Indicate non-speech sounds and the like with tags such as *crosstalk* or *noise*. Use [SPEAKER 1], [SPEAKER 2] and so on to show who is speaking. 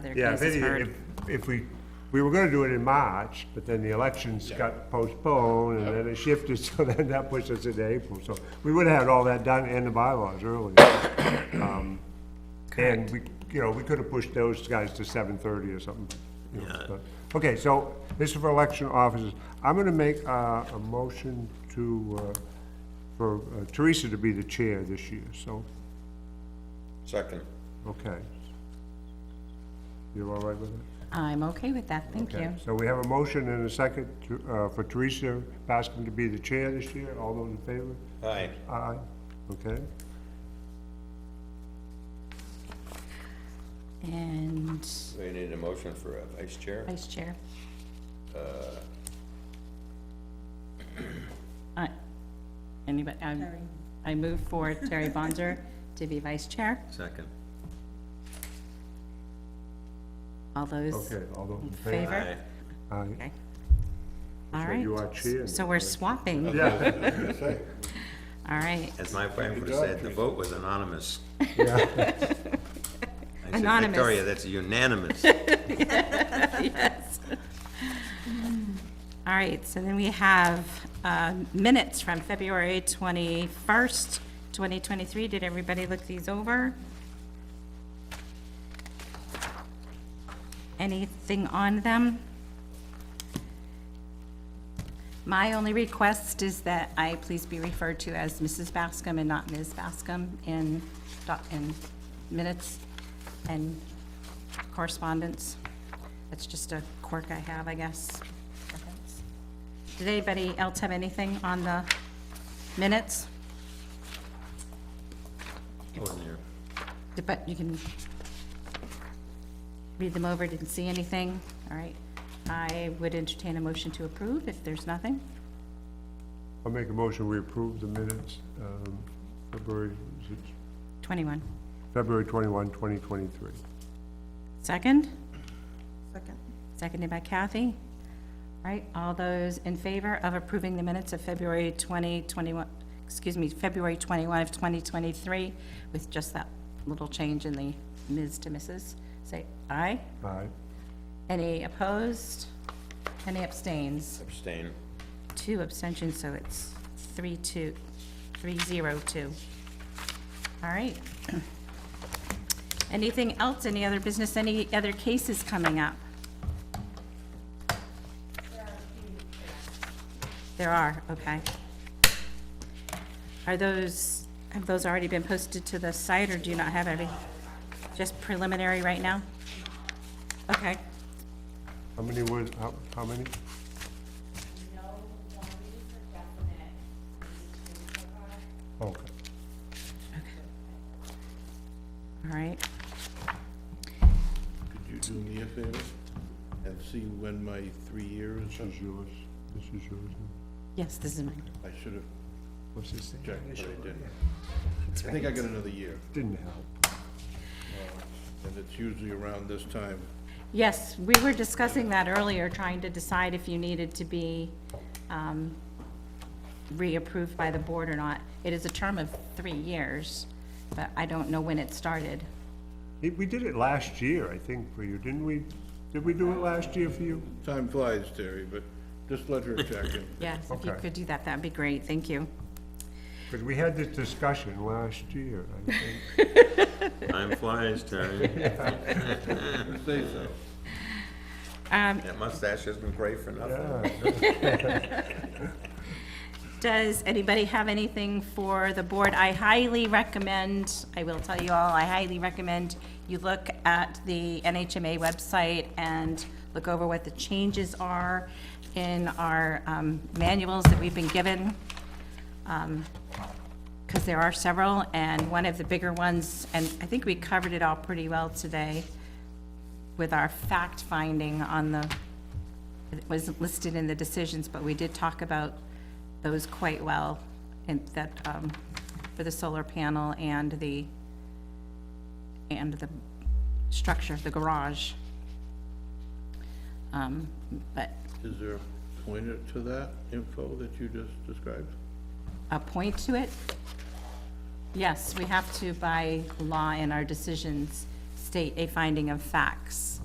[SPEAKER 1] other
[SPEAKER 2] Yeah, if,
[SPEAKER 1] cases
[SPEAKER 2] any-
[SPEAKER 1] heard.
[SPEAKER 2] if, if we, we were gonna do it in March, but then the elections got postponed, and then it shifted, *laughs* so then that pushed us into April, so we would've had all that done and the bylaws earlier. Um, And we, you know, we could've pushed those guys to seven thirty or something. you know, but- Okay, so this is for election officers. I'm gonna make, uh, a motion to, uh, for uh, Teresa to be the chair this year, so,
[SPEAKER 3] Second.
[SPEAKER 2] okay. You're all right with it?
[SPEAKER 1] I'm okay with that, thank
[SPEAKER 2] Okay,
[SPEAKER 1] you.
[SPEAKER 2] So we have a motion and a second to, uh, for Teresa Bascom to be the chair this year. All those in favor?
[SPEAKER 3] Aye.
[SPEAKER 2] Aye. Okay.
[SPEAKER 1] And
[SPEAKER 3] We need a motion for a vice chair.
[SPEAKER 1] vice chair?
[SPEAKER 2] Uh.
[SPEAKER 1] I, anybody, I, I move for Terry Bonzer to be vice chair.
[SPEAKER 3] Second.
[SPEAKER 1] All those
[SPEAKER 2] Okay, all those
[SPEAKER 1] in
[SPEAKER 2] in favor?
[SPEAKER 1] favor?
[SPEAKER 2] Aye.
[SPEAKER 1] Okay. All
[SPEAKER 2] So
[SPEAKER 1] right.
[SPEAKER 2] you are chair.
[SPEAKER 1] So we're swapping.
[SPEAKER 2] Yeah,
[SPEAKER 1] *laughs* All right.
[SPEAKER 4] As my wife would have said, the vote was anonymous.
[SPEAKER 2] yeah,
[SPEAKER 4] I said,
[SPEAKER 1] Anonymous.
[SPEAKER 4] Victoria, that's
[SPEAKER 1] *laughs*
[SPEAKER 4] unanimous.
[SPEAKER 1] Yes. All right, so then we have uh, minutes from February 21st, 2023. Did everybody look these over? Anything on them? My only request is that I please be referred to as Mrs. Bascom and not Ms. Bascom in, doc- in minutes and correspondence. That's just a quirk I have, I guess. Did anybody else have anything on the minutes?
[SPEAKER 4] Wasn't there?
[SPEAKER 1] But you can read them over, didn't see anything, all right. I would entertain a motion to approve if there's nothing.
[SPEAKER 2] I'll make a motion, we approve the minutes, um, February, is it
[SPEAKER 1] 21.
[SPEAKER 2] February 21, 2023.
[SPEAKER 1] Second?
[SPEAKER 5] Second.
[SPEAKER 1] Seconded by Kathy. All right, all those in favor of approving the minutes of February 20, 21, excuse me, February 21 of 2023, with just that little change in the Ms. to Mrs., say aye.
[SPEAKER 2] Aye.
[SPEAKER 1] Any opposed? Any abstains?
[SPEAKER 3] Abstain.
[SPEAKER 1] Two abstentions, so it's three, two, three, zero, two. All right. Anything else, any other business, any other cases coming up? There are, okay. Are those, have those already been posted to the site, or do you not have any? Just preliminary right now? Okay,
[SPEAKER 2] How many was, how, how many? Okay.
[SPEAKER 1] all right.
[SPEAKER 6] Could you do me a favor and see when my three years,
[SPEAKER 2] This is yours, this is yours.
[SPEAKER 1] Yes, this is mine.
[SPEAKER 6] I should have
[SPEAKER 2] What's this thing?
[SPEAKER 6] checked, but I didn't. I think I got another year, Uh,
[SPEAKER 2] Didn't help.
[SPEAKER 6] and it's usually around this time.
[SPEAKER 1] Yes, we were discussing that earlier, trying to decide if you needed to be um, reapproved by the board or not. It is a term of three years, but I don't know when it started.
[SPEAKER 2] Hey, We did it last year, I think, for you, didn't we? Did we do it last year for you?
[SPEAKER 6] Time flies, Terry, but just let her check
[SPEAKER 2] *laughs*
[SPEAKER 6] it.
[SPEAKER 1] Yes, if you
[SPEAKER 2] Okay.
[SPEAKER 1] could do that, that'd be great, thank you.
[SPEAKER 2] Because we had this discussion last year, I think.
[SPEAKER 4] Time flies,
[SPEAKER 3] *laughs*
[SPEAKER 4] Terry. *laughs*
[SPEAKER 6] Say so.
[SPEAKER 4] That mustache has been great for nothing.
[SPEAKER 2] Yeah.
[SPEAKER 1] Does anybody have anything for the board? I highly recommend, I will tell you all, I highly recommend you look at the NHMA website and look over what the changes are in our um, manuals that we've been given because there are several, and one of the bigger ones, and I think we covered it all pretty well today with our fact finding on the, it was listed in the decisions, but we did talk about those quite well, and that, um, for the solar panel and the, and the structure, the garage. Um, but
[SPEAKER 6] Is there a pointer to that info that you just described?
[SPEAKER 1] a point to it? Yes, we have to by law in our decisions s- state a finding of facts.